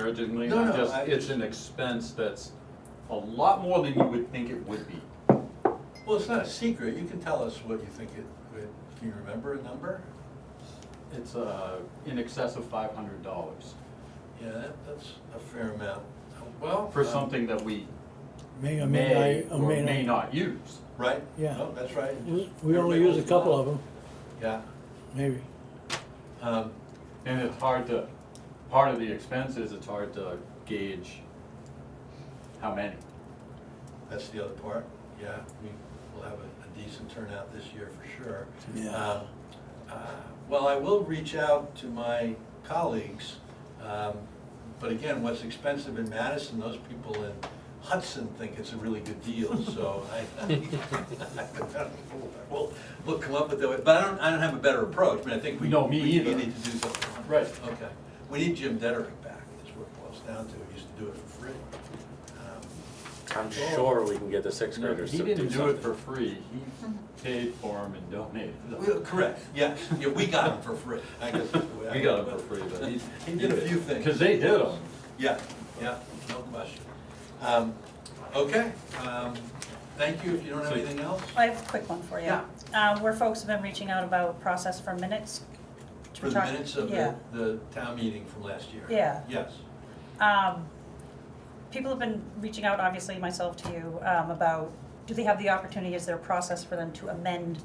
disparagingly, No, I'm no, just, I- it's an expense that's a lot more than you would think it would be. Well, it's not a secret, you can tell us what you think it, what- can you remember a number? It's, uh, in excess of five hundred dollars Yeah, that, that's a fair amount, well. for um, something that we May, or may may, not- or may not. not use. Right? Yeah. No, that's right. We we only use a couple of them, Yeah, maybe. um, And it's hard to, part of the expense is it's hard to gauge how many. that's the other part, yeah, we will have a- a decent turnout this year for sure. Yeah. Um, uh, Well, I will reach out to my colleagues, um, but again, what's expensive in Madison, those people in Hudson think it's a really good deal, so I, we'll, we'll come up with that, but I don't, I don't have a better approach, I mean, I think we. No, me we- either. We need to do something. on it. Right. Okay, we need Jim Dederick back, is what it boils down to, he used to do it for free. Um, I'm sure we can get the sixth No, graders He to do didn't do it for something. free, he paid for them and donated Mm-hmm. Well, them. Correct, yes, yeah, we got him for free, I guess. that's the way I- We got them for free, but he. He did a few things. Cause they did them. Yeah, yeah, no question. Um, Okay, um, thank you, if you don't have So- anything else? I have a quick one for you. Yeah. Uh, where folks have been reaching out about process for minutes. For the Talk- minutes of Yeah. the, the town meeting from last year? Yeah. Yes, Um, people have been reaching out, obviously myself to you, um, about, do they have the opportunity, is there a process for them to amend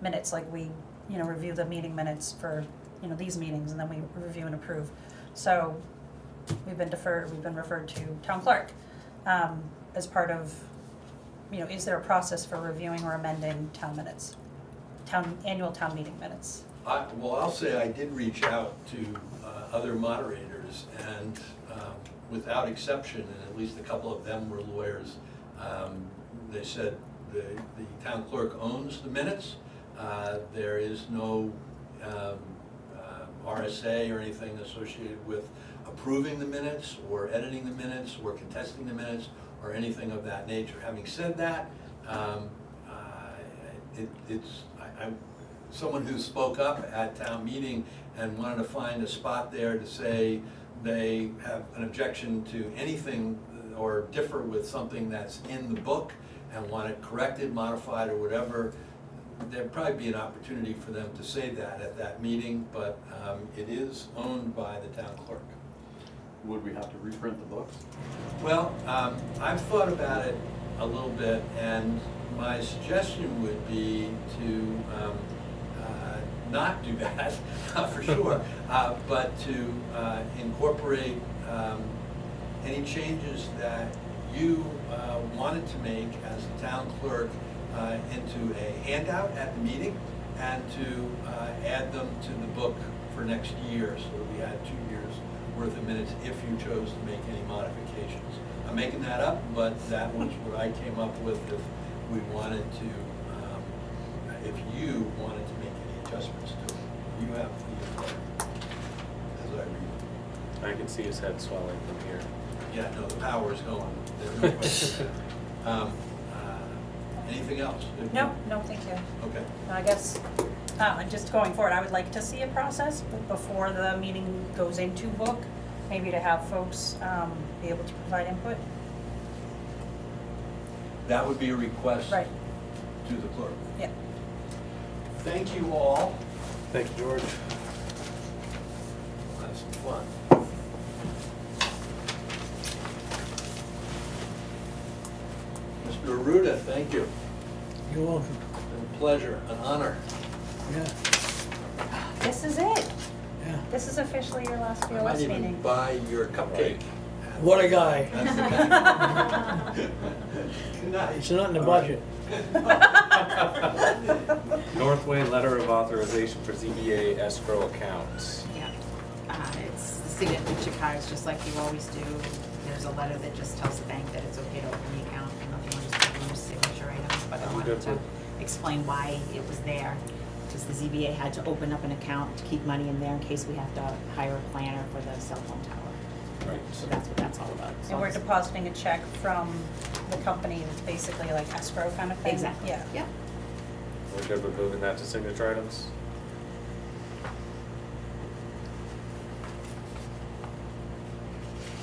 minutes? Like we, you know, review the meeting minutes for, you know, these meetings and then we review and approve. So we've been deferred, we've been referred to town clerk, um, as part of, you know, is there a process for reviewing or amending town minutes? Town, annual town meeting minutes? I, well, I'll say I did reach out to uh, other moderators, and um, without exception, and at least a couple of them were lawyers, um, they said the, the town clerk owns the minutes. Uh, There is no um, uh, RSA or anything associated with approving the minutes, or editing the minutes, or contesting the minutes, or anything of that nature. Having said that, um, I- Uh, it, it's, I, I, someone who spoke up at town meeting and wanted to find a spot there to say they have an objection to anything or differ with something that's in the book and want it corrected, modified, or whatever, there'd probably be an opportunity for them to say that at that meeting, but, um, it is owned by the town clerk. Would we have to reprint the books? Well, um, I've thought about it a little bit, and my suggestion would be to um, uh, not do that, for sure, uh, but to uh, incorporate um, any changes that you uh, wanted to make as the town clerk uh, into a handout at the meeting, and to uh, add them to the book for next year, so that we had two years worth of minutes if you chose to make any modifications. I'm making that up, but that was what I came up with if we wanted to, um, if you wanted to make any adjustments to it. You have the, authority, as I read. I can see his head swelling from here. Yeah, no, the power's going. There's no question. Um, uh, Anything else? No, no, thank you. Okay. I guess, uh, and just going forward, I would like to see a process b- before the meeting goes into book, maybe to have folks um, be able to provide input. That would be a request Right, to the clerk. yeah. Thank you all. Thank you, George. Have some fun. Mr. Aruda, thank you. You're welcome, It's been a pleasure, an honor. yeah, This is it. yeah. This is officially your last I might BOS even meeting. buy your cupcake. What a guy. That's the guy. Good night. It's not in the All right. budget. Northway letter of authorization for ZBA escrow accounts. Yeah, uh, it's the signature cards, just like you always do. There's a letter that just tells the bank that it's okay to open the account, and nothing was just your signature items, but I wanted to explain why it was there. Because the ZBA had to open up an account to keep money in there in case we have to hire a planner for the cell phone tower. Right. So that's what that's all about. So And we're it's- depositing a check from the company that's basically like escrow kind of thing. Exactly, Yeah. yeah. We're good with moving that to signature items?